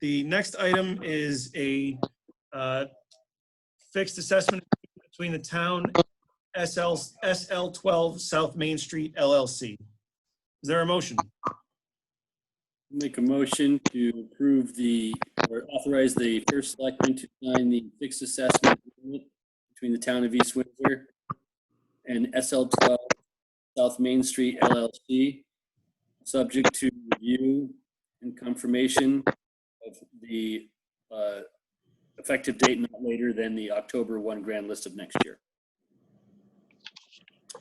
The next item is a uh, fixed assessment between the town SL, SL 12 South Main Street LLC. Is there a motion? Make a motion to approve the, or authorize the first selectman to sign the fixed assessment agreement between the town of East Windsor and SL 12 South Main Street LLC, subject to review and confirmation of the uh, effective date not later than the October 1 grand list of next year.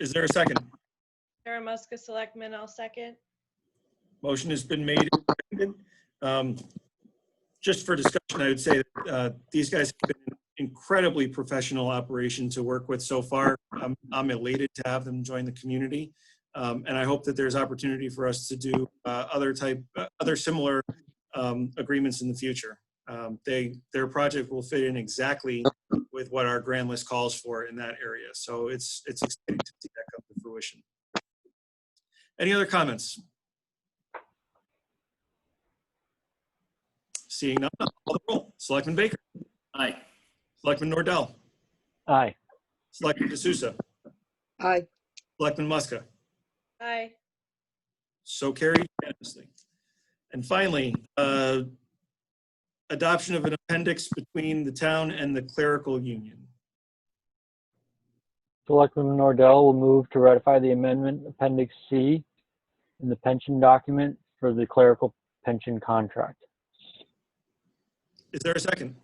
Is there a second? Maramuska Selectmen, I'll second. Motion has been made. and seconded. Um, Just for discussion, I would say that uh, these guys have been incredibly professional operation to work with so far. I'm I'm elated to have them join the community. Um, And I hope that there's opportunity for us to do uh, other type, uh, other similar um, agreements in the future. Um, They, their project will fit in exactly with what our grand list calls for in that area. So it's, it's exciting to see that come to fruition. Any other comments? Seeing none, I'll call the roll. Selectman Baker, Aye. Selectman Nordell, Aye. Selectman D'Souza, Aye. Selectman Muska. Aye. So carried unanimously. And finally, uh, adoption of an appendix between the town and the clerical union. Selectman Nordell will move to ratify the amendment Appendix C in the pension document for the clerical pension contract. Is there a second?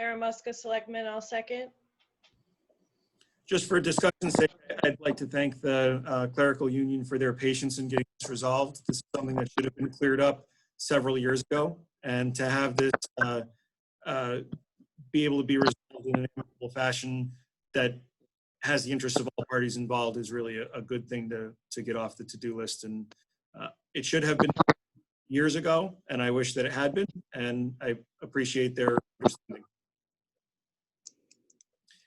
Maramuska Selectmen, I'll second. Just for discussion's sake, I'd like to thank the uh, clerical union for their patience in getting this resolved. This is something that should have been cleared up several years ago. And to have this uh, uh, be able to be resolved in an amicable fashion that has the interests of all parties involved is really a, a good thing to, to get off the to-do list. And uh, it should have been years ago, and I wish that it had been, and I appreciate their understanding.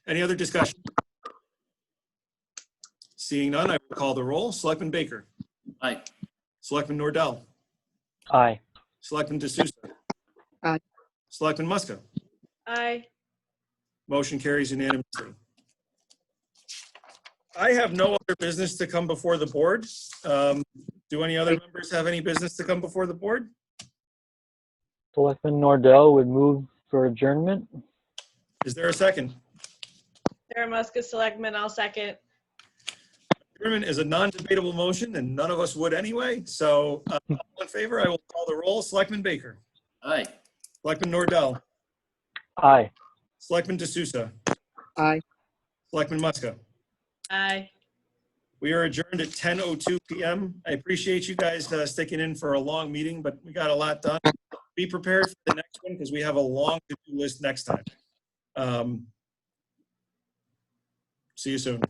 Any other discussion? Seeing none, I will call the roll. Selectman Baker. Aye. Selectman Nordell. Aye. Selectman D'Souza. Aye. Selectman Muska. Aye. Motion carries unanimously. I have no other business to come before the board. Um, Do any other members have any business to come before the board? Selectman Nordell would move for adjournment. Is there a second? Maramuska Selectmen, I'll second. Adjournment is a non-debatable motion, and none of us would anyway. So uh, all in favor, I will call the roll. Selectman Baker. Aye. Selectman Nordell. Aye. Selectman D'Souza. Aye. Selectman Muska. Aye. We are adjourned at 10:02 PM. I appreciate you guys uh, sticking in for a long meeting, but we got a lot done. Be prepared for the next one because we have a long to-do list next time. Um, See you soon.